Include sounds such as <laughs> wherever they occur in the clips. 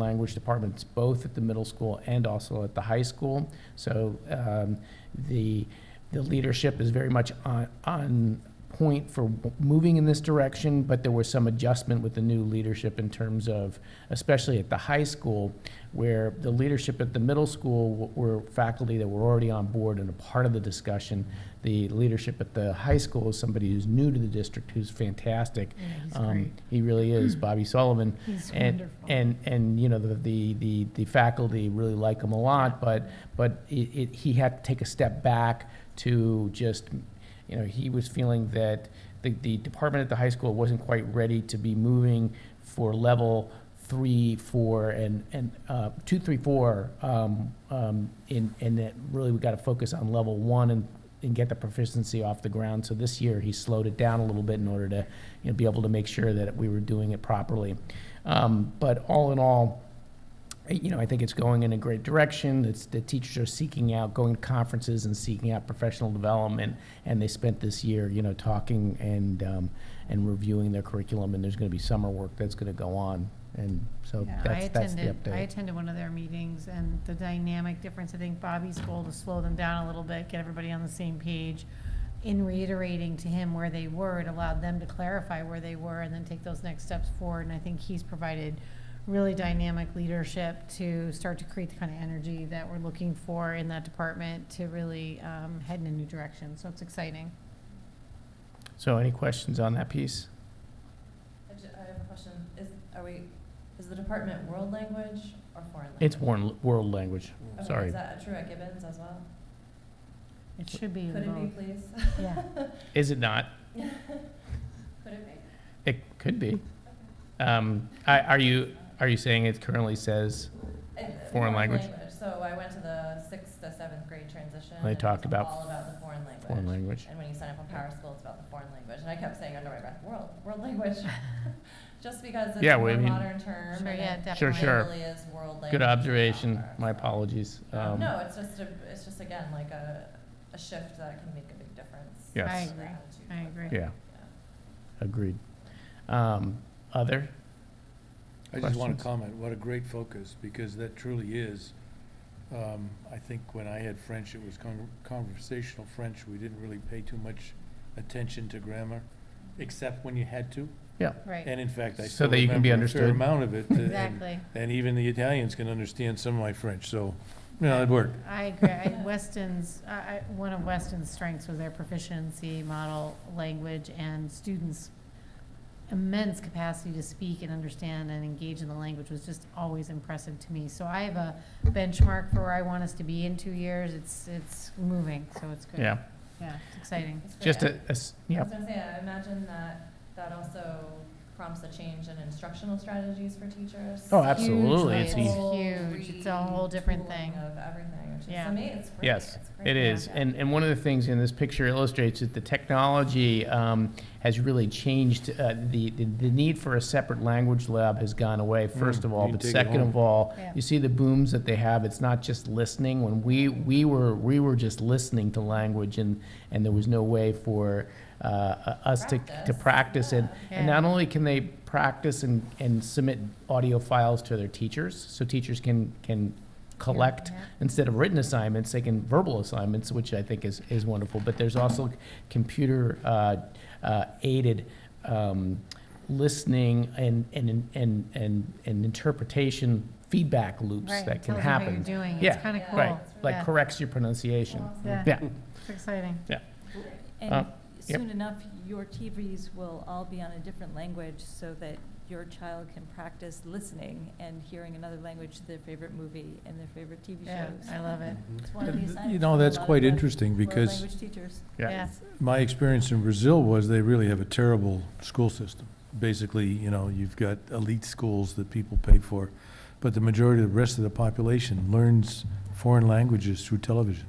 language departments, both at the middle school and also at the high school. So um, the, the leadership is very much on, on point for moving in this direction, but there was some adjustment with the new leadership in terms of, especially at the high school, where the leadership at the middle school w- were faculty that were already on board and a part of the discussion. The leadership at the high school is somebody who's new to the district, who's fantastic. he's Um, great. He really <clears throat> is, Bobby Sullivan. He's And- wonderful. And, and, you know, the, the, the the faculty really like him a lot, but, but it, it, he had to take a step back to just, you know, he was feeling that the, the department at the high school wasn't quite ready to be moving for level three, four, and, and, uh, two, three, four, um, um, and, and that really we gotta focus on level one and, and get the proficiency off the ground. So this year, he slowed it down a little bit in order to, you know, be able to make sure that we were doing it properly. Um, but all in all, you know, I think it's going in a great direction. It's, the teachers are seeking out, going to conferences and seeking out professional development. And they spent this year, you know, talking and, um, and reviewing their curriculum. And there's going to be summer work that's going to go on. And so Yeah, I that's, that's the attended, I update. attended one of their meetings, and the dynamic difference, I think Bobby's goal to slow them down a little bit, get everybody on the same page. In reiterating to him where they were, it allowed them to clarify where they were and then take those next steps forward, and I think he's provided really dynamic leadership to start to create the kind of energy that we're looking for in that department to really um, head in a new direction, so it's exciting. So any questions on that piece? I ju- I have a question. Is, are we, is the department world language or foreign language? It's world, world language. Okay, sorry. Is that true at Gibbons as well? It should be. in Could it be, both. please? <laughs> Yeah. Is it not? Could it be? It could be. Um, I, are you, are you saying it currently says It- Foreign language. uh, So I went to the sixth to seventh grade transition. They and it talked was about All about the foreign language. foreign language? And when you sign up on Power School, it's about the foreign language. And I kept saying under my breath, world, <laughs> world language. Just because it's Yeah, a well, I more mean- modern term. Sure, and yeah, it definitely. Sure. Really is world language. Good observation. proper, My so. apologies. Um, Um, No, it's just a, it's just again, like a, a shift that can make a big difference. Yes. I to the agree. attitude I towards agree. it. Yeah, agreed. Um, Other? I just Questions? want to comment, what a great focus, because that truly is. um, I think when I had French, it was con- conversational French. We didn't really pay too much attention to grammar, except when you had to. Right, And in fact, I So still that you can be remember a fair understood. amount of it. uh, and- exactly. And even the Italians can understand some of my French, so, you know, it worked. I agree. I- Weston's, I, I, one of Weston's strengths was their proficiency model language and students' immense capacity to speak and understand and engage in the language was just always impressive to me. So I have a benchmark for where I want us to be in two years. It's, it's moving, so it's good. Yeah, Yeah, it's exciting. It's great. just a, a s- I yeah, was gonna say, I imagine that, that also prompts a change in instructional strategies for teachers. Oh, absolutely. It's It's Whole huge. It's a whole different thing. retooling Of everything, which is, Yeah. to me, it's great. Yes, It's great. it is. Yeah. And, and one of the things in this picture illustrates that the technology um, has really changed, uh, the, the the need for a separate language lab has gone away, first Mm, of all, you but take it second home. of all, Yeah. you see the booms that they have, it's not just listening. When we, we were, we were just listening to language and, and there was no way for uh, uh, us to, to Practice. practice and, And Yeah. not only can they practice and, and submit audio files to their teachers, so teachers can, can collect, Yeah. instead of written assignments, they can verbal assignments, which I think is, is wonderful. But there's also computer uh, uh, aided um, listening and, and, and, and, and interpretation feedback loops Right, that it can tells you how you're happen. doing. Yeah, It's kind of right, cool. Right, like Yeah. corrects your pronunciation. Awesome. Yeah. Yeah, It's exciting. Uh, And yep. soon enough, your TVs will all be on a different language so that your child can practice listening and hearing another language to their favorite movie and their favorite TV Yeah, shows. I love it. It's one of the Uh, You assignments know, for a that's lot of quite the interesting, world because Language teachers. yeah, my experience in Brazil was they really have a terrible school system. Basically, you know, you've got elite schools that people pay for, but the majority of the rest of the population learns foreign languages through television.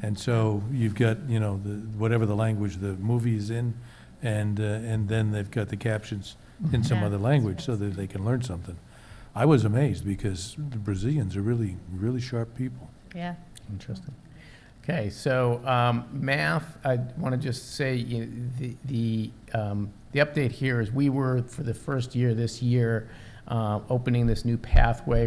And so you've got, you know, the, whatever the language the movie is in, and, uh, and then they've got the captions in some Yeah. other language so that they can learn something. I was amazed because the Brazilians are really, really sharp people. Yeah. interesting. Okay, so um, math, I want to just say, you know, the, the um, the update here is we were, for the first year this year, um, uh, opening this new pathway